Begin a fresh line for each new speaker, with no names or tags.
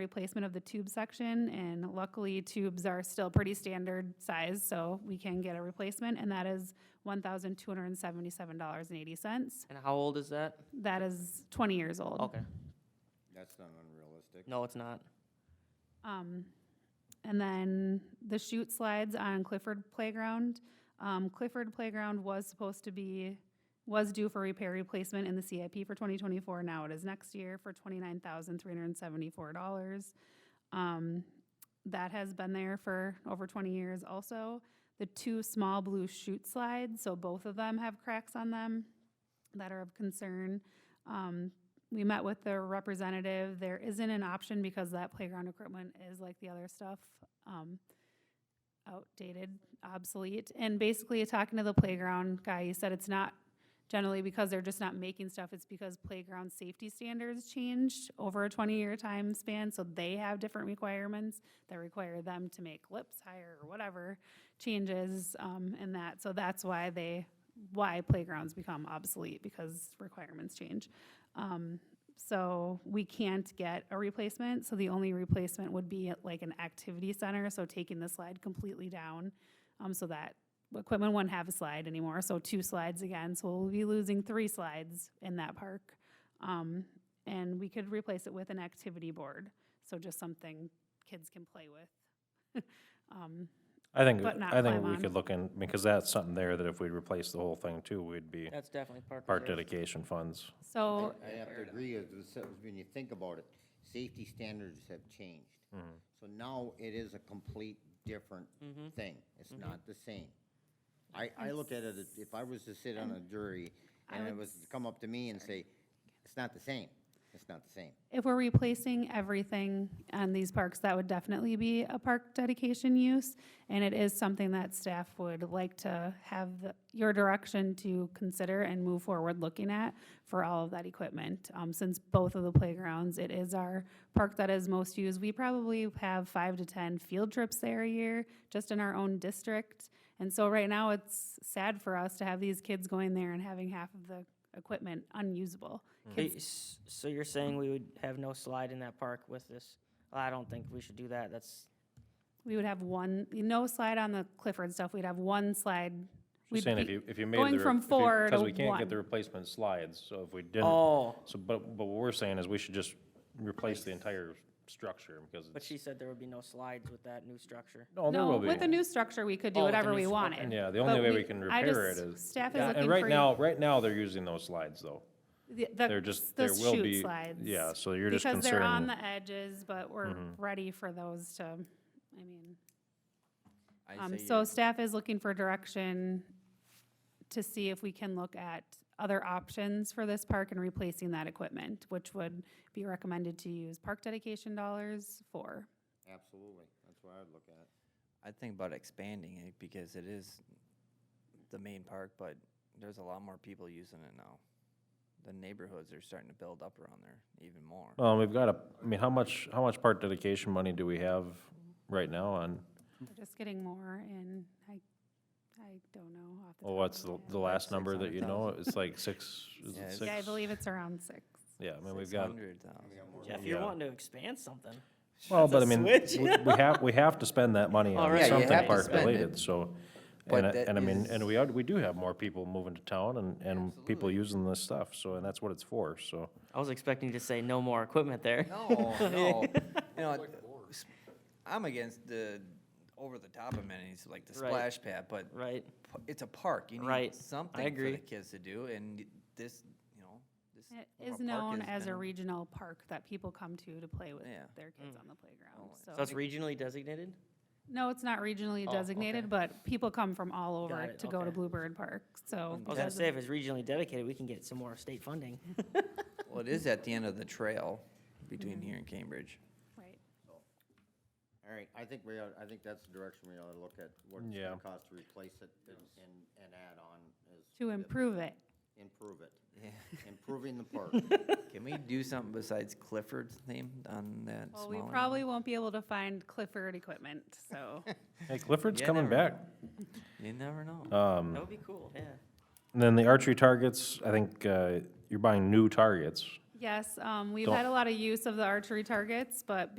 replacement of the tube section, and luckily tubes are still pretty standard size, so we can get a replacement, and that is one thousand two hundred and seventy-seven dollars and eighty cents.
And how old is that?
That is twenty years old.
Okay.
That's not unrealistic.
No, it's not.
Um, and then the chute slides on Clifford Playground. Um, Clifford Playground was supposed to be, was due for repair replacement in the CIP for twenty twenty-four. Now it is next year for twenty-nine thousand three hundred and seventy-four dollars. Um, that has been there for over twenty years also. The two small blue chute slides, so both of them have cracks on them that are of concern. Um, we met with the representative. There isn't an option because that playground equipment is like the other stuff, um, outdated, obsolete. And basically, talking to the playground guy, he said it's not generally because they're just not making stuff. It's because playground safety standards changed over a twenty-year time span, so they have different requirements that require them to make lips higher or whatever changes, um, and that. So that's why they, why playgrounds become obsolete because requirements change. Um, so we can't get a replacement, so the only replacement would be at like an activity center, so taking the slide completely down. Um, so that equipment wouldn't have a slide anymore, so two slides again, so we'll be losing three slides in that park. Um, and we could replace it with an activity board, so just something kids can play with. Um,
I think,
but not
I think
climb
we
on.
could look in, because that's something there that if we replace the whole thing too, we'd be
That's definitely park.
part
reserve.
dedication funds.
so,
I have to agree with the se- when you think about it, safety standards have changed. So now it is a complete different thing. It's not the same. I, I look at it, as if I was to sit on a jury and it was to come up to me and say, it's not the same, it's not the same.
If we're replacing everything on these parks, that would definitely be a park dedication use. And it is something that staff would like to have the- your direction to consider and move forward looking at for all of that equipment. Um, since both of the playgrounds, it is our park that is most used. We probably have five to ten field trips there a year, just in our own district. And so right now, it's sad for us to have these kids going there and having half of the equipment unusable.
So y- s- So you're saying we would have no slide in that park with this? Well, I don't think we should do that. That's,
We would have one, no slide on the Clifford stuff, we'd have one slide. We'd
She's saying if
be-
you, if you made the.
going
re-
from
if you-
four to
Cause we can't get the
one.
replacement slides, so if we didn't.
oh,
So, but, but what we're saying is we should just replace the entire structure because
but
it's,
she said there would be no slides with that new structure.
no, there
No,
will be.
with the new structure, we could do
Oh, with the
whatever
new
we
s-
wanted.
okay.
Yeah, the
but
only way we can
I
repair it
just-
is.
Staff is
Yeah,
looking
And
for.
right
you-
now, right now, they're using those slides though.
the-
They're just, there
the
will
chute
be.
slides.
Yeah, so you're just
Because they're on
concerned. Mm-hmm.
the edges, but we're ready for those to, I mean. Um, so staff is looking for direction to see if we can look at other options for this park and replacing that equipment, which would be recommended to use park dedication dollars for.
Absolutely, that's what I'd look at.
I think about expanding it because it is the main park, but there's a lot more people using it now. The neighborhoods are starting to build up around there even more.
Oh,
Um, we've got a, I mean, how much, how much part dedication money do we have right now on?
They're just getting more and I, I don't know. off the
Well,
top
what's
of
the,
my head.
the last number that you know?
600,000.
It's like six, is
Yeah,
it
it's-
six?
Yeah, I believe it's around six.
Yeah, I mean, we've got,
600,000.
Jeff, you're
Yeah.
wanting to expand something.
well, but I
a
mean,
switch.
we we have, we have to spend that money
All
on
right. Yeah, you
have
something
to
park
spend it.
related, so.
But
And, I-
that
and I mean, and
is-
we are, we do have more people moving to town and, and people using this stuff, so, and that's what it's for, so.
I was expecting you to say no more equipment there.
No, no. You know, s- I'm against the over-the-top amenities like the
Right.
splash pad, but
Right?
p- it's a park. You
Right.
need
I
something for
agree.
the kids to do and y- this, you know, this.
It
little
is
park
known as
has
a
been-
regional park that people come to to play with
Yeah. Mm. Oh,
their kids on the playground,
So
so.
it's regionally designated?
No, it's not regionally designated, but people come from all over
Oh, it,
to go to
okay.
Bluebird Park, so.
I was gonna say, if it's regionally dedicated, we can get some more state funding.
Well, it is at the end of the trail between
Mm-hmm.
here and Cambridge.
Right.
All right, I think we ought, I think that's the direction we ought to look at, what it's
Yeah.
gonna cost to replace it and, and, and add on is
To improve it.
improve it.
Yeah.
Improving the park.
Can we do something besides Clifford's name on that
Well, we
smaller?
probably won't be able to find Clifford equipment, so.
Hey, Clifford's
Yeah,
coming
never know.
back.
You never know.
That would be cool, yeah.
And then the archery targets, I think, uh, you're buying new targets.
Yes, um, we've
Don't-
had a lot of use of the archery targets, but